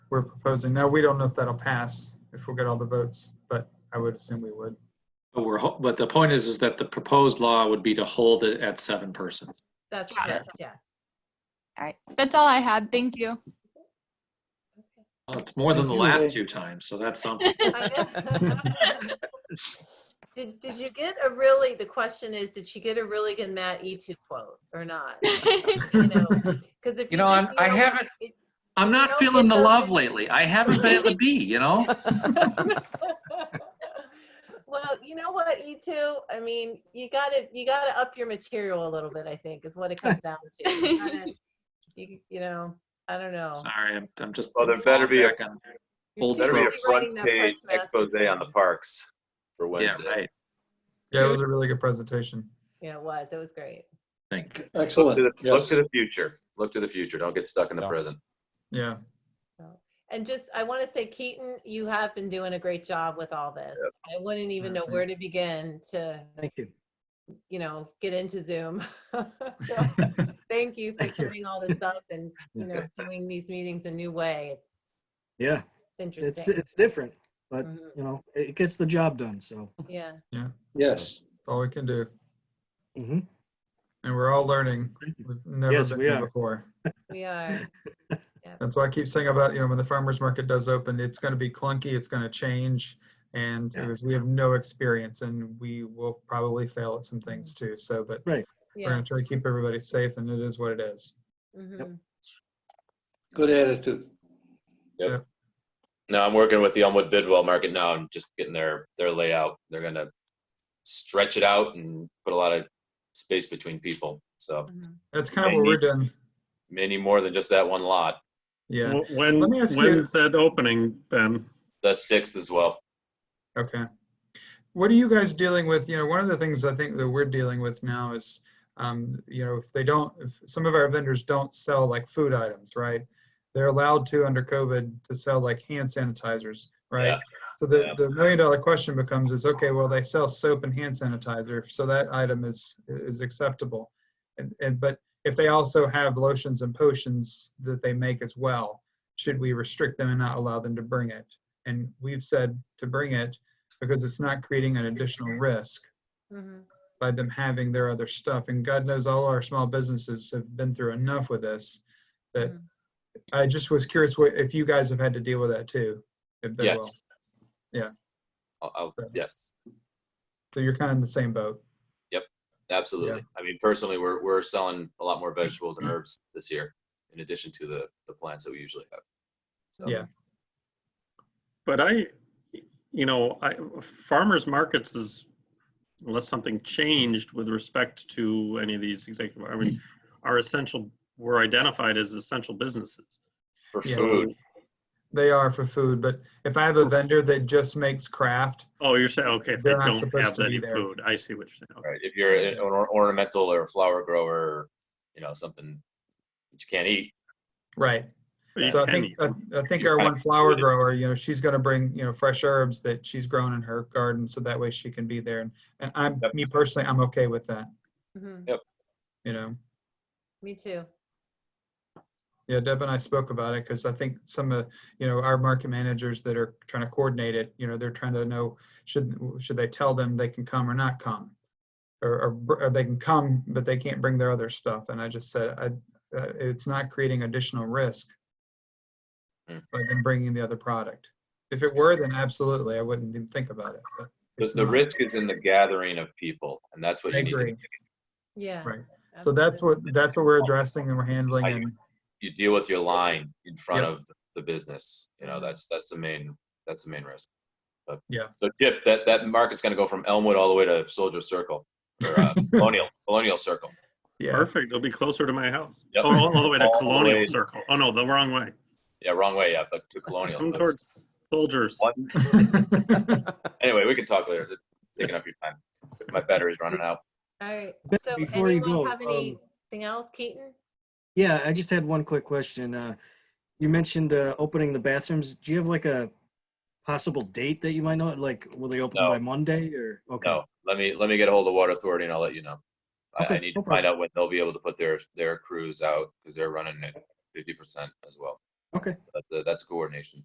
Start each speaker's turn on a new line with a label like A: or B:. A: we're proposing. Now, we don't know if that'll pass, if we'll get all the votes, but I would assume we would.
B: But we're, ho- but the point is, is that the proposed law would be to hold it at seven persons.
C: That's
D: Got it.
C: correct, yes.
D: All right, that's all I had. Thank you.
B: Well, It's more than the
E: Thank you, Ray.
B: last two times, so that's something.
C: I- Did, did you get a really, the question is, did she get a really good Matt Etu quote or not? Because if
B: You
C: you
B: know, I'm,
C: did,
B: I
C: don't-
B: haven't,
C: it-
B: I'm not
C: don't
B: feeling
C: get
B: the
C: those-
B: love lately. I haven't been able to be, you know?
C: Well, you know what, E2, I mean, you gotta, you gotta up your material a little bit, I think, is what it comes down to. You gotta- You you know, I don't know.
B: Sorry, I'm, I'm just.
F: Well, there better be a-
B: back on-
C: You're
B: Old
C: too
F: Better be a
C: busy writing that
F: front-page
C: Parks Master
F: expose on the
C: Plan.
F: parks for
B: Yeah,
F: Wednesday.
B: right,
A: Yeah, it was a really good presentation.
C: Yeah, it was, it was great.
B: think.
E: Excellent.
F: To the- Look
E: Yes.
F: to the future. Look to the future. Don't get stuck in the
E: Yeah.
F: present.
A: Yeah.
C: And just, I want to say, Keaton, you have been doing a great job with all this. I wouldn't
G: Mm,
C: even know where to begin to,
E: Thank you.
C: you know, get into Zoom. So, Thank you for
E: Thank you.
C: doing all this up and, you know, doing these meetings a new way. It's
G: Yeah,
C: it's
G: it's uh,
C: interesting.
G: it's different, but
C: Mhm.
G: you know, it gets the job done. So,
C: Yeah,
A: That's
E: Yes.
A: all we can do.
G: Mhm.
A: And we're all learning. We've never
G: Yes,
A: been
G: we
A: here
G: are.
A: before.
C: we are.
A: That's why I keep saying about, you know, when the farmer's market does open, it's going to be clunky, it's going to change. And
G: Yeah.
A: because we have no experience and we will probably fail at some things too. So, but we're
C: Yeah.
A: going to try to keep everybody safe and it is what it is.
C: mhm.
E: Good attitude.
F: No, I'm working with the Elmwood Bidwell Market now. I'm just getting their, their layout. They're gonna stretch it out and put a lot of space between people. So
C: Mhm.
A: That's kind of
F: They
A: what we're
F: need-
A: doing.
F: many more than just that one lot.
A: Yeah.
H: Wh- When,
A: Let me ask you-
H: when's that opening, Ben?
F: The sixth as well.
A: Okay. What are you guys dealing with? You know, one of the things I think that we're dealing with now is, um, you know, if they don't, if some of our vendors don't sell like food items, right? They're allowed to under COVID to sell like hand sanitizers, right?
F: Yeah.
A: So the,
F: Yeah.
A: the million dollar question becomes is, okay, well, they sell soap and hand sanitizer, so that item is, is acceptable. And, and, but if they also have lotions and potions that they make as well, should we restrict them and not allow them to bring it? And we've said to bring it because it's not creating an additional risk
C: Mhm.
A: by them having their other stuff. And God knows all our small businesses have been through enough with this that
C: Mhm.
A: I just was curious what, if you guys have had to deal with that too. at Bidwell.
F: Yes.
A: Yeah.
F: I'll, I'll, yes,
A: So you're kind of in the same boat.
F: absolutely. I mean, personally, we're, we're selling a lot more vegetables and herbs this year in addition to the, the plants that we usually have. So
A: Yeah.
H: But I, you know, I, farmers markets is, unless something changed with respect to any of these executive, I mean, are essential, were identified as essential businesses.
F: For
A: Yeah.
F: food,
A: They are for food, but if I have a vendor that just makes craft,
H: Oh, you're saying, okay, if they
A: They're not
H: don't
A: supposed
H: have
A: to be
H: any
A: there.
H: food, I see what you're saying.
F: right? If you're an or- ornamental or a flower grower, you know, something that you can't eat,
A: right.
H: But you
A: So I
H: can
A: think,
H: eat
A: I
H: them.
A: I think
H: You
A: our
H: can
A: one flower
H: eat it.
A: grower, you know, she's gonna bring, you know, fresh herbs that she's grown in her garden, so that way she can be there. And- And I'm,
F: Yep.
A: me personally, I'm okay with that,
C: Mhm.
A: you know.
C: Me too.
A: Yeah, Deb and I spoke about it because I think some of, you know, our market managers that are trying to coordinate it, you know, they're trying to know, should, should they tell them they can come or not come? Or, or, br- or they can come, but they can't bring their other stuff. And I just said, I, uh, it's not creating additional risk by
F: Mm.
A: them bringing the other product. If it were, then absolutely, I wouldn't even think about it. but
F: The,
A: it's
F: the
A: not.
F: risk is in the gathering of people, and that's what
A: I
F: you need.
A: agree.
F: To,
C: Yeah.
A: Right. So that's
C: absolutely.
A: what, that's what we're addressing and we're handling
F: I-
A: and,
F: you deal with your line in front
A: Yep.
F: of the business. You know, that's that's the main that's the main risk. But
A: Yeah.
F: So Chip, that that market's going to go from Elmwood all the way to Soldier Circle or uh, Colonial Colonial Circle.
A: yeah,
H: Perfect, it'll be closer to my house.
F: Yep.
H: Oh, all the way to
F: All the way.
H: Colonial Circle. Oh, no, the wrong way.
F: Yeah, wrong way. Yeah, but to Colonial.
H: Come
F: But
H: towards Soldiers.
F: What? Anyway, we can talk later. It's taking up your time. My battery's running out.
C: All right.
G: Ben,
C: So
G: before you
C: anyone
G: go,
C: have
G: um,
C: anything else, Keaton?
G: yeah, I just had one quick question. Uh, you mentioned uh, opening the bathrooms. Do you have like a possible date that you might know? Like, will they open
F: No.
G: by Monday or okay?
F: No, let me let me get a hold of Water Authority and I'll let you know. I, I
G: Okay,
F: need
G: no
F: to find out when they'll be able to put their their crews out because they're running at fifty percent as well.
G: Okay.
F: But, uh, That's coordination.